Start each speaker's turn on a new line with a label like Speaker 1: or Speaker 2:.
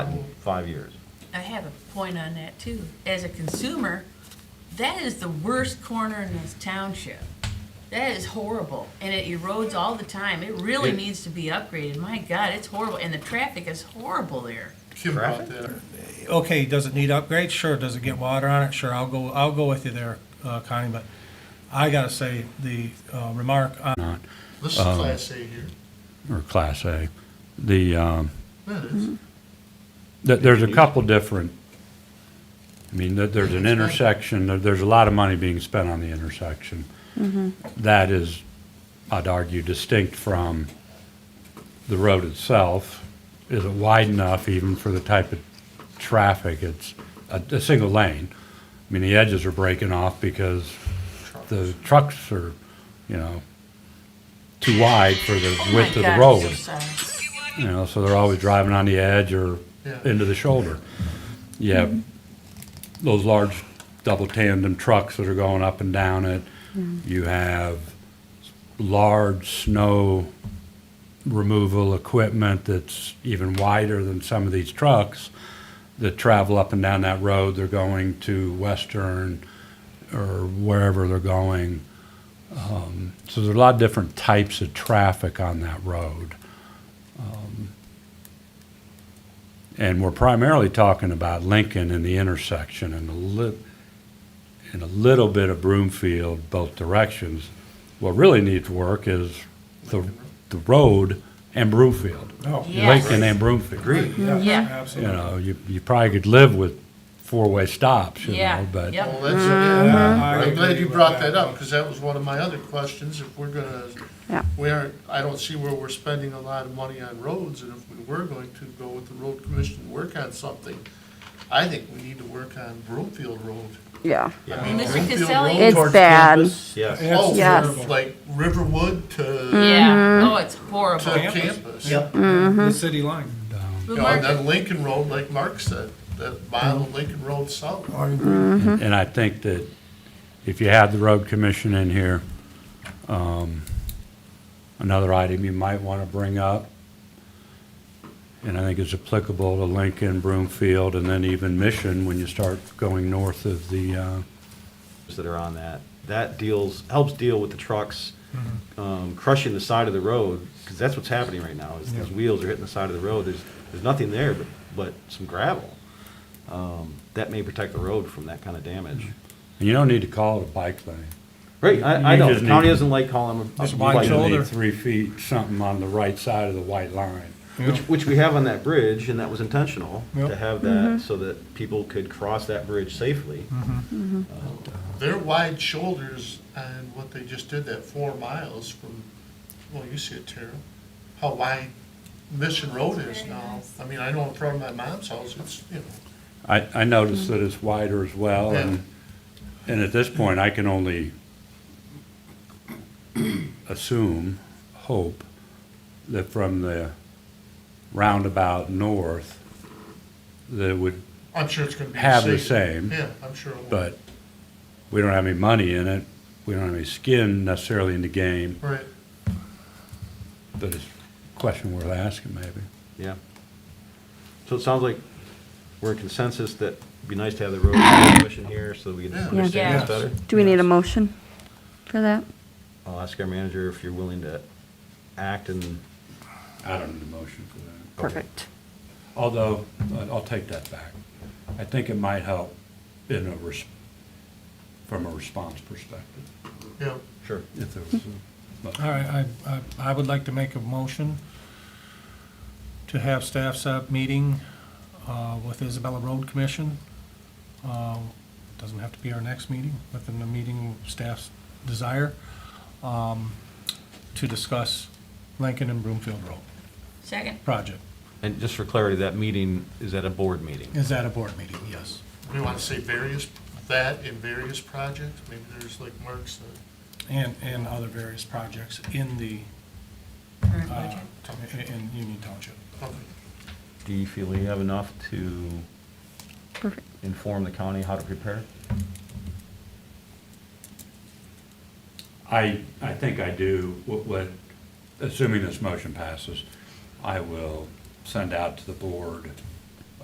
Speaker 1: in five years.
Speaker 2: I have a point on that too. As a consumer, that is the worst corner in this township. That is horrible, and it erodes all the time. It really
Speaker 1: It-
Speaker 2: needs to be upgraded. My God, it's horrible, and the traffic is horrible there.
Speaker 3: Kim
Speaker 1: Traffic?
Speaker 3: brought that up.
Speaker 4: okay, does it need upgrades? Sure. Does it get water on it? Sure. I'll go, I'll go with you there, uh, Connie, but I gotta say, the, uh, remark on
Speaker 3: This is
Speaker 5: Um,
Speaker 3: Class A here.
Speaker 6: or Class A. The, um,
Speaker 3: That is.
Speaker 6: th- there's a couple different, I mean, th- there's an intersection, there- there's a lot of money being spent on the intersection.
Speaker 2: Mm-hmm.
Speaker 6: That is, I'd argue, distinct from the road itself. Is it wide enough even for the type of traffic? It's a, a single lane. I mean, the edges are breaking off because the trucks are, you know, too wide for the
Speaker 2: Oh my
Speaker 6: width
Speaker 2: God,
Speaker 6: of the
Speaker 2: I'm
Speaker 6: road.
Speaker 2: so sorry.
Speaker 6: You know, so they're always driving on the edge or
Speaker 3: Yeah.
Speaker 6: into the shoulder. You have those large double tandem trucks that are going up and down it. You have large snow removal equipment that's even wider than some of these trucks that travel up and down that road. They're going to Western or wherever they're going. Um, So there's a lot of different types of traffic on that road. And we're primarily talking about Lincoln and the intersection and a li- and a little bit of Broomfield both directions. What really needs work is the, the road and Broomfield.
Speaker 4: Oh,
Speaker 2: Yes.
Speaker 6: Lincoln and Broomfield.
Speaker 1: Agreed.
Speaker 2: Yeah.
Speaker 6: You
Speaker 4: Absolutely.
Speaker 6: know, you, you probably could live with four-way stops, you
Speaker 2: Yeah,
Speaker 6: know, but.
Speaker 2: yep.
Speaker 3: Well, that's,
Speaker 5: Uh-huh.
Speaker 3: yeah.
Speaker 4: I
Speaker 3: I'm glad
Speaker 4: agree
Speaker 3: you
Speaker 4: with
Speaker 3: brought
Speaker 4: that.
Speaker 3: that up, because that was one of my other questions. If we're gonna,
Speaker 5: Yeah.
Speaker 3: we aren't, I don't see where we're spending a lot of money on roads, and if we were going to go with the road commission and work on something, I think we need to work on Broomfield Road.
Speaker 5: Yeah,
Speaker 3: I
Speaker 1: Yeah.
Speaker 3: mean,
Speaker 2: Mr.
Speaker 3: Broomfield
Speaker 2: Caselli-
Speaker 3: Road
Speaker 5: It's
Speaker 3: towards
Speaker 5: bad.
Speaker 3: campus.
Speaker 1: Yes.
Speaker 4: It's
Speaker 3: Oh,
Speaker 5: terrible.
Speaker 3: from, like Riverwood to,
Speaker 5: Mm.
Speaker 2: Yeah, oh, it's
Speaker 3: to
Speaker 2: horrible.
Speaker 4: Campus.
Speaker 3: campus.
Speaker 4: Yep, the city line.
Speaker 2: Blue
Speaker 3: You know, and
Speaker 2: market.
Speaker 3: then Lincoln Road, like Mark said, that mile of Lincoln Road south.
Speaker 6: And I think that if you had the road commission in here, um, another item you might want to bring up, and I think it's applicable to Lincoln, Broomfield, and then even Mission when you start going north of the, uh,
Speaker 1: That are on that. That deals, helps deal with the trucks um, crushing the side of the road, because that's what's happening right now, is these wheels are hitting the side of the road. There's, there's nothing there but, but some gravel. Um, That may protect the road from that kind of damage.
Speaker 6: and you don't need to call it a bike lane.
Speaker 1: Right, I, I
Speaker 6: You
Speaker 1: know,
Speaker 6: just
Speaker 1: the county
Speaker 6: need-
Speaker 1: doesn't like calling them. a
Speaker 4: Just
Speaker 1: bike
Speaker 4: wide
Speaker 1: lane.
Speaker 6: You
Speaker 4: shoulder.
Speaker 6: need three feet something on the right side of the white line.
Speaker 1: Which,
Speaker 4: Yeah.
Speaker 1: which we have on that bridge, and that was intentional, to
Speaker 4: Yep.
Speaker 1: have that, so that people could cross that bridge safely.
Speaker 3: Their wide shoulders and what they just did, that four miles from, well, you see it, Tara, how wide Mission Road is now. I mean, I know in front of my mom's house, it's, you know,
Speaker 6: I, I noticed that it's wider as well, and, and at this point, I can only assume, hope, that from the roundabout north, that it would,
Speaker 3: I'm sure it's gonna be.
Speaker 6: Have the same.
Speaker 3: Yeah, I'm sure. it will.
Speaker 6: but we don't have any money in it, we don't have any skin necessarily in the game,
Speaker 3: Right,
Speaker 6: but it's a question worth asking maybe.
Speaker 1: Yeah. So it sounds like we're in consensus that it'd be nice to have the road commission here so we can
Speaker 3: Yeah.
Speaker 1: understand
Speaker 2: Yeah.
Speaker 1: this better.
Speaker 5: do we need a motion for that?
Speaker 1: I'll ask our manager if you're willing to act and,
Speaker 6: I don't need a motion for that.
Speaker 5: Perfect.
Speaker 6: Although, I- I'll take that back. I think it might help in a, res- from a response perspective,
Speaker 3: yeah.
Speaker 1: sure.
Speaker 6: if there was. a-
Speaker 4: All right, I, I, I would like to make a motion to have staff set up meeting, uh, with Isabella Road Commission. Uh, Doesn't have to be our next meeting, within the meeting staff's desire, um, to discuss Lincoln and Broomfield Road
Speaker 2: Second,
Speaker 4: project.
Speaker 1: And just for clarity, that meeting is at a board meeting.
Speaker 4: Is that a board meeting? Yes.
Speaker 3: We wanna say various, that in various projects, maybe there's like Mark said.
Speaker 4: And, and other various projects in the,
Speaker 2: current
Speaker 4: uh,
Speaker 2: budget.
Speaker 4: in, in Union Township.
Speaker 3: Okay.
Speaker 1: Do you feel you have enough to
Speaker 5: Perfect.
Speaker 1: inform the county how to prepare?
Speaker 6: I, I think I do, what, what, assuming this motion passes, I will send out to the board